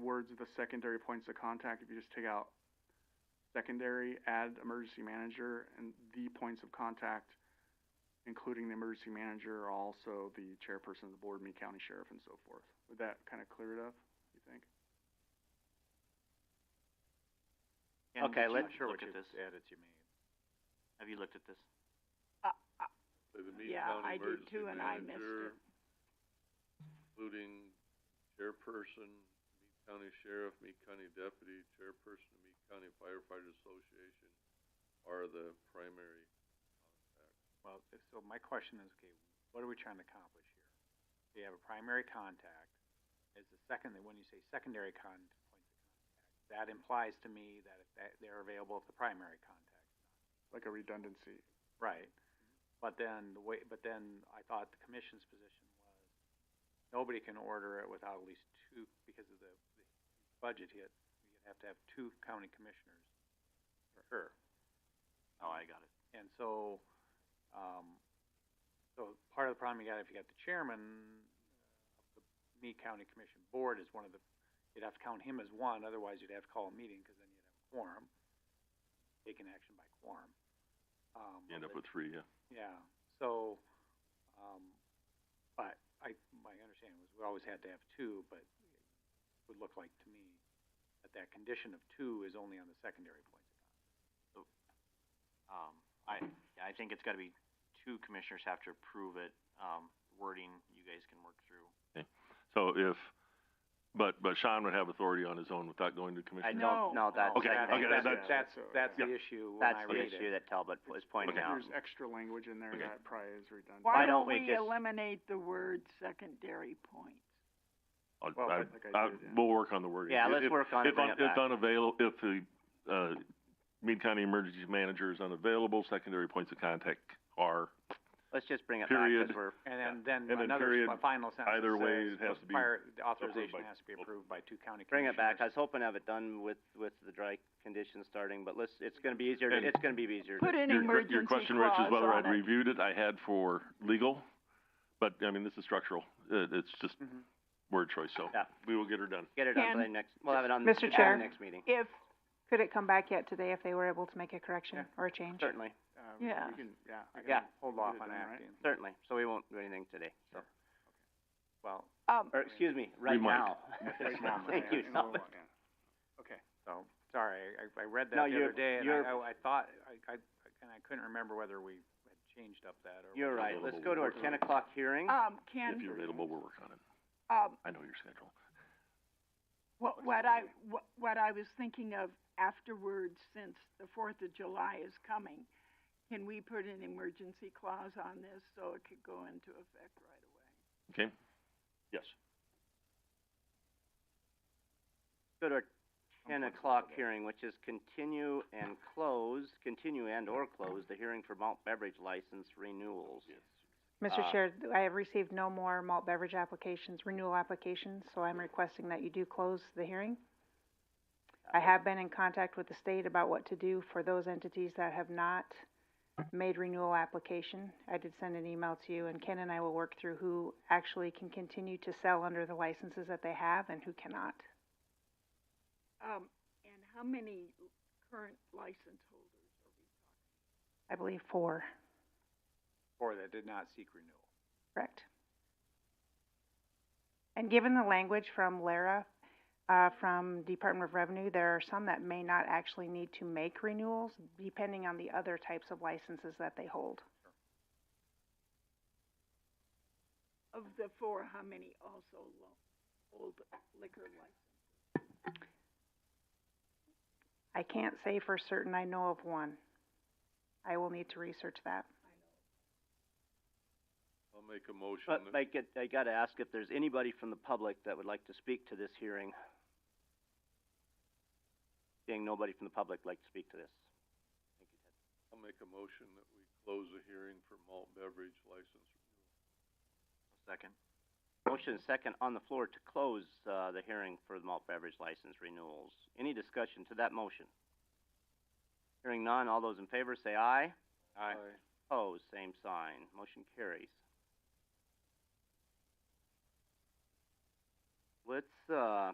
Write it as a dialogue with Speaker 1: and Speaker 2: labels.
Speaker 1: words of the secondary points of contact, if you just take out secondary, add emergency manager, and the points of contact, including the emergency manager, are also the chairperson of the board, me, county sheriff, and so forth. Would that kind of clear it up, you think?
Speaker 2: And
Speaker 3: Okay,
Speaker 2: I'm
Speaker 3: let's
Speaker 2: not sure
Speaker 3: look
Speaker 2: what
Speaker 3: at
Speaker 2: you've
Speaker 3: this.
Speaker 2: added you made. Have you looked at this?
Speaker 4: By the Meade
Speaker 5: Yeah, I do
Speaker 4: County Emergency
Speaker 5: too, and I missed
Speaker 4: Manager,
Speaker 5: it.
Speaker 4: including chairperson, Meade County Sheriff, Meade County Deputy, chairperson of Meade County Firefighters Association are the primary contacts.
Speaker 3: Well, if- so my question is, okay, what are we trying to accomplish here? We have a primary contact, is the second, when you say secondary con, points of contact, that implies to me that if that, they're available if the primary contact.
Speaker 1: Like a redundancy.
Speaker 3: Right. But then the way, but then I thought the commission's position was, nobody can order it without at least two, because of the, the budget hit, you'd have to have two county commissioners. Sure.
Speaker 2: Oh, I got it.
Speaker 3: And so, um, so part of the problem you got, if you got the chairman, uh, of the Meade County Commission Board is one of the, you'd have to count him as one, otherwise you'd have to call a meeting, cause then you'd have a quorum. Taking action by quorum. Um,
Speaker 6: End up with three, yeah.
Speaker 3: yeah, so, um, but I, my understanding was we always had to have two, but it would look like to me that that condition of two is only on the secondary points.
Speaker 2: Um, I, I think it's gotta be two commissioners have to approve it, um, wording you guys can work through.
Speaker 6: So if, but, but Sean would have authority on his own without going to commission.
Speaker 2: I don't,
Speaker 5: No.
Speaker 2: no, that's,
Speaker 6: Okay,
Speaker 2: I think
Speaker 6: okay,
Speaker 2: that's,
Speaker 6: that's-
Speaker 3: That's,
Speaker 1: so-
Speaker 3: that's the
Speaker 6: yeah.
Speaker 3: issue when I
Speaker 2: that's the
Speaker 3: read
Speaker 2: issue
Speaker 3: it.
Speaker 2: that Talbot was pointing
Speaker 6: Okay.
Speaker 2: out.
Speaker 1: There's extra language in there
Speaker 6: Okay.
Speaker 1: that probably is redundant.
Speaker 2: Why
Speaker 5: Why
Speaker 2: don't
Speaker 5: don't
Speaker 2: we
Speaker 5: we
Speaker 2: just-
Speaker 5: eliminate the word secondary points?
Speaker 6: I'll-
Speaker 1: Well,
Speaker 6: I-
Speaker 1: like I
Speaker 6: I-
Speaker 1: did, yeah.
Speaker 6: We'll work on the wording.
Speaker 2: Yeah,
Speaker 6: If-
Speaker 2: let's
Speaker 6: if-
Speaker 2: work on it,
Speaker 6: If,
Speaker 2: bring
Speaker 6: un-
Speaker 2: it
Speaker 6: if
Speaker 2: back.
Speaker 6: unavail, if the, uh, Meade County Emergency Manager is unavailable, secondary points of contact are,
Speaker 2: Let's just bring it back,
Speaker 6: Period.
Speaker 2: cause we're,
Speaker 3: And then,
Speaker 6: And
Speaker 3: then
Speaker 6: then
Speaker 3: another,
Speaker 6: period,
Speaker 3: my final sentence
Speaker 6: either way,
Speaker 3: says,
Speaker 6: it has to be
Speaker 3: prior- the authorization
Speaker 6: by-
Speaker 3: has to be approved by two county
Speaker 2: bring it
Speaker 3: commissioners.
Speaker 2: back. I was hoping to have it done with, with the dry conditions starting, but let's, it's gonna be easier, to-
Speaker 6: And-
Speaker 2: it's gonna be easier to
Speaker 5: Put an
Speaker 6: Your- your,
Speaker 5: emergency
Speaker 6: your question, Rich,
Speaker 5: clause
Speaker 6: is whether
Speaker 5: on
Speaker 6: I'd
Speaker 5: it.
Speaker 6: reviewed it. I had for legal, but, I mean, this is structural. It, it's just
Speaker 3: Mhm.
Speaker 6: word choice, so
Speaker 2: Mm-hmm. Yeah.
Speaker 6: we will get her done.
Speaker 2: get it on
Speaker 7: Can-
Speaker 2: by next, we'll have it on,
Speaker 7: Mr.
Speaker 2: on the
Speaker 7: Chair.
Speaker 2: next meeting,
Speaker 7: If, could it come back yet today if they were able to make a correction or a change?
Speaker 2: certainly,
Speaker 1: Uh,
Speaker 7: Yeah.
Speaker 1: We can, yeah. we can
Speaker 2: Yeah.
Speaker 3: Hold off
Speaker 1: get it
Speaker 3: on
Speaker 1: done, right?
Speaker 3: acting,
Speaker 2: certainly. So we won't do anything today, so,
Speaker 3: well,
Speaker 7: Um,
Speaker 2: or, excuse me, right
Speaker 6: might.
Speaker 2: now.
Speaker 1: Right now,
Speaker 2: Thank
Speaker 1: yeah,
Speaker 2: you,
Speaker 1: in a little
Speaker 2: Talbot.
Speaker 1: while, yeah. Okay.
Speaker 3: so, sorry, I, I read
Speaker 2: No,
Speaker 3: that the
Speaker 2: you're-
Speaker 3: other day, and
Speaker 2: you're-
Speaker 3: I, I, I thought, I, I, and I couldn't remember whether we had changed up that or.
Speaker 2: You're right, let's go to our ten o'clock hearing.
Speaker 5: Um,
Speaker 6: If
Speaker 5: Ken,
Speaker 6: you're available, we'll work on it.
Speaker 5: um,
Speaker 6: I know your schedule.
Speaker 5: what, what I, what, what I was thinking of afterwards, since the Fourth of July is coming, can we put an emergency clause on this so it could go into effect right away?
Speaker 6: Okay? Yes.
Speaker 2: go to our ten
Speaker 1: flexible
Speaker 2: o'clock
Speaker 1: today.
Speaker 2: hearing, which is continue and close, continue and or close the hearing for malt beverage license renewals.
Speaker 7: Mr.
Speaker 2: Uh,
Speaker 7: Chair, I have received no more malt beverage applications, renewal applications, so I'm requesting that you do close the hearing. I have been in contact with the state about what to do for those entities that have not made renewal application. I did send an email to you, and Ken and I will work through who actually can continue to sell under the licenses that they have and who cannot.
Speaker 5: Um, and how many current license holders are we talking?
Speaker 7: I believe four,
Speaker 3: Or that did not seek renewal.
Speaker 7: correct? And given the language from Lara, uh, from Department of Revenue, there are some that may not actually need to make renewals, depending on the other types of licenses that they hold.
Speaker 5: Of the four, how many also lo- hold liquor license?
Speaker 7: I can't say for certain I know of one. I will need to research that.
Speaker 4: I'll make a motion,
Speaker 2: But
Speaker 4: that-
Speaker 2: I get, I gotta ask if there's anybody from the public that would like to speak to this hearing. Seeing nobody from the public like to speak to this.
Speaker 4: I'll make a motion that we close the hearing for malt beverage license.
Speaker 2: Second. Motion and second on the floor to close, uh, the hearing for the malt beverage license renewals. Any discussion to that motion? Hearing none, all those in favor say aye.
Speaker 4: Aye.
Speaker 2: Opposed, same sign. Motion carries. Let's, uh,